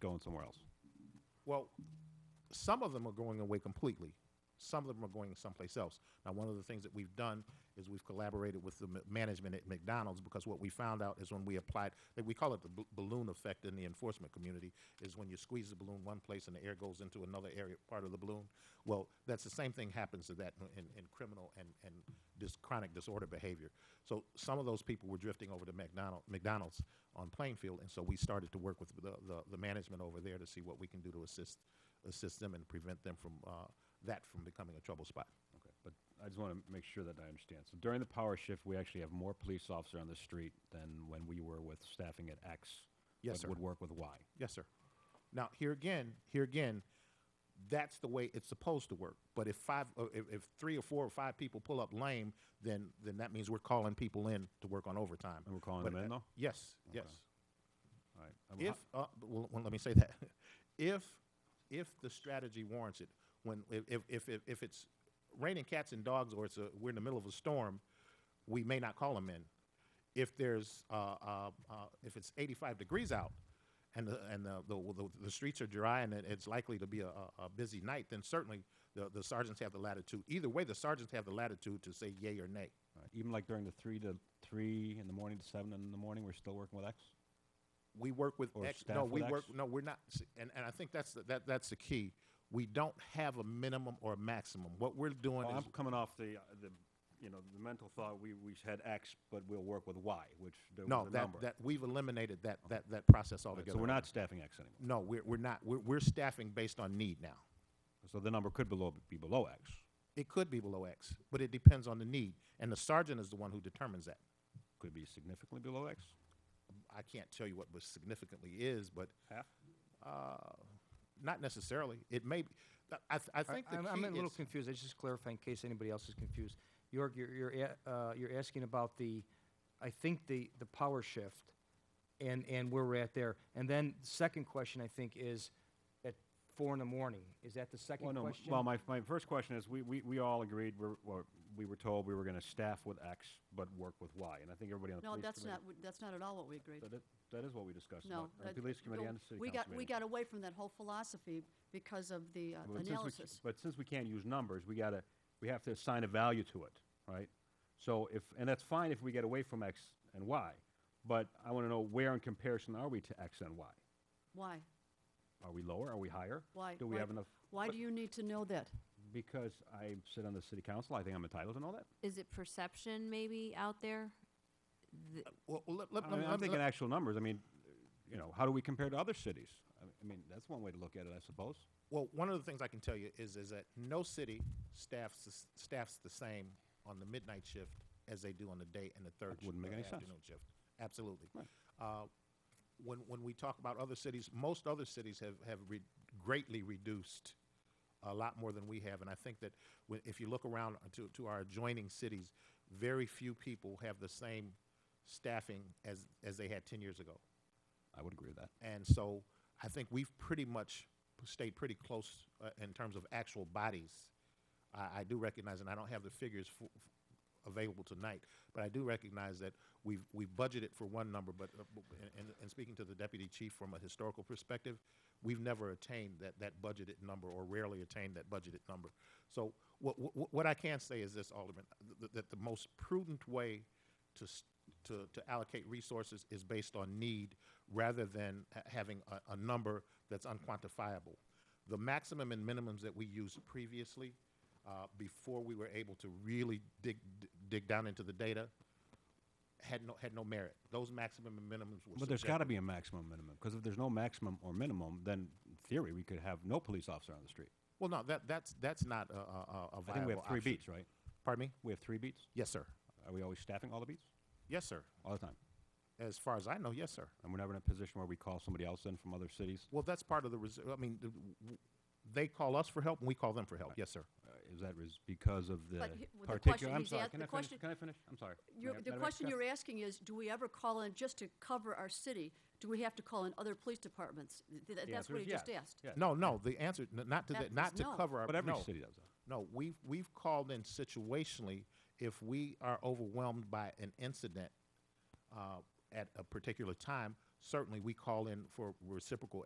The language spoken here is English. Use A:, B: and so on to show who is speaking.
A: going somewhere else.
B: Well, some of them are going away completely. Some of them are going someplace else. Now, one of the things that we've done is we've collaborated with the ma- management at McDonald's because what we found out is when we applied, that we call it the bl- balloon effect in the enforcement community, is when you squeeze the balloon one place and the air goes into another area, part of the balloon. Well, that's the same thing happens to that in, in criminal and, and dis- chronic disorder behavior. So some of those people were drifting over to McDonald, McDonald's on Plainfield, and so we started to work with the, the, the management over there to see what we can do to assist assist them and prevent them from uh, that from becoming a trouble spot.
A: Okay, but I just want to make sure that I understand. So during the power shift, we actually have more police officer on the street than when we were with staffing at X. but
B: Yes, sir.
A: Would work with Y.
B: Yes, sir. Now here again, here again, that's the way it's supposed to work. But if five, uh, if, if three or four or five people pull up lame, then then that means we're calling people in to work on overtime.
A: And we're calling
B: But,
A: them in,
B: uh,
A: though?
B: Yes,
A: Okay.
B: yes.
A: All right. Uh, well,
B: If,
A: ho-
B: uh, b- well, well, let me say that. If, if the strategy warrants it, when, if, if- if, if, if it's raining cats and dogs or it's a, we're in the middle of a storm, we may not call them in. If there's, uh, uh, uh, if it's eighty-five degrees out and the, and the, the, the, the streets are dry and it- it's likely to be a, a a busy night, then certainly the, the sergeants have the latitude. Either way, the sergeants have the latitude to say yay or nay.
A: all right, Even like during the three to three in the morning to seven in the morning, we're still working with X?
B: we work with
A: Or
B: X. No,
A: staff
B: we
A: with
B: work.
A: X?
B: No, we're not. s- And, and I think that's the, that that's the key. We don't have a minimum or a maximum. What we're doing
A: Well,
B: is
A: I'm coming off the, uh, the, you know, the mental thought, we, we had X, but we'll work with Y, which there
B: no
A: was a
B: that
A: number.
B: that we've eliminated that that that process
A: All right,
B: altogether.
A: So we're not staffing X anymore.
B: No, we're we're not. We're we're staffing based on need now.
A: So the number could below, be below X.
B: It could be below X, but it depends on the need, and the sergeant is the one who determines that.
A: Could be significantly below X,
B: I can't tell you what was significantly is, but
A: half.
B: uh, not necessarily. It may. Be, I I- I think the
C: I'm,
B: key
C: I'm a little
B: is-
C: confused. I just clarify in case anybody else is confused. York, you're you're, a, uh, you're asking about the, I think the the power shift, and and where we're at there. And then the second question I think is, at four in the morning. Is that the second
A: Well, no, m-
C: question?
A: well, my, my first question is, we, we, we all agreed, we're, we're- we were told we were gonna staff with X, but work with Y, and I think everybody on the
D: No,
A: police
D: that's
A: committee.
D: not, what- that's not at all what we agreed.
A: That, that is what we discussed,
D: No.
A: on the
D: that-
A: police committee
D: no,
A: and the city
D: We
A: council
D: got, we
A: meeting.
D: got away from that whole philosophy because of the uh,
A: But since we c-
D: analysis.
A: But since we can't use numbers, we gotta, we have to assign a value to it, right? So if, and that's fine if we get away from X and Y, but I wanna know where in comparison are we to X and Y?
D: Why?
A: Are we lower, are we higher?
D: Why?
A: Do we
D: why-
A: have enough?
D: Why
A: but-
D: do you need to know that?
A: Because I sit on the city council, I think I'm entitled to know that.
E: Is it perception maybe out there? Th-
B: Well, let, let,
A: I
B: let-
A: mean, I'm
B: let-
A: thinking actual numbers, I mean, you know, how do we compare to other cities? I mean- I mean, that's one way to look at it, I suppose.
B: Well, one of the things I can tell you is, is that no city staffs, the s- staffs the same on the midnight shift as they do on the day and the third.
A: That wouldn't
B: sh-
A: make
B: uh,
A: any sense.
B: Afternoon shift, absolutely. Uh, When, when we talk about other cities, most other cities have, have re- greatly reduced a lot more than we have. And I think that wh- if you look around to, to our adjoining cities, very few people have the same staffing as, as they had ten years ago.
A: I would agree with that.
B: And so I think we've pretty much stayed pretty close uh, in terms of actual bodies. I, I do recognize, and I don't have the figures f- f- available tonight, but I do recognize that we've, we've budgeted for one number, but, uh, b- and, and speaking to the deputy chief from a historical perspective, we've never attained that, that budgeted number or rarely attained that budgeted number. So what, what, what I can say is this, Alderman, th- that the most prudent way to, s- to, to allocate resources is based on need rather than ha- having a, a number that's unquantifiable. The maximum and minimums that we used previously, uh, before we were able to really dig, dig down into the data, had no, had no merit. Those maximum and minimums were
A: But there's got to
B: subjective.
A: be a maximum minimum, because if there's no maximum or minimum, then in theory, we could have no police officer on the street.
B: Well, no, that, that's, that's not a, a, a- a viable
A: I think we have three
B: option.
A: beats, right?
B: Pardon me?
A: We have three beats?
B: Yes, sir.
A: Are we always staffing all the beats?
B: Yes, sir.
A: All the time?
B: As far as I know, yes, sir.
A: And we're never in a position where we call somebody else in from other cities?
B: Well, that's part of the, res- I mean, th- w- they call us for help and we call them for help. Yes, sir.
A: Uh, Is that res- because of the
D: But he- well, the question
A: particular? I'm
D: he's
A: sorry,
D: ask-
A: can
D: the
A: I finish?
D: question-
A: Can I finish? I'm sorry.
D: You're-
A: Madam-
D: The
A: Madam
D: question
A: Chair?
D: you're asking is, do we ever call in just to cover our city? Do we have to call in other police departments? Th- th-
A: The
D: That's
A: answer
D: what
A: is
D: he just
A: yes,
D: asked.
A: yes.
B: No, no, the answer, n- not to,
D: That
B: that, not
D: was
B: to
D: no.
B: cover our,
A: But every
B: no.
A: city does that.
B: No, we've, we've called in situationally if we are overwhelmed by an incident uh, at a particular time. Certainly, we call in for reciprocal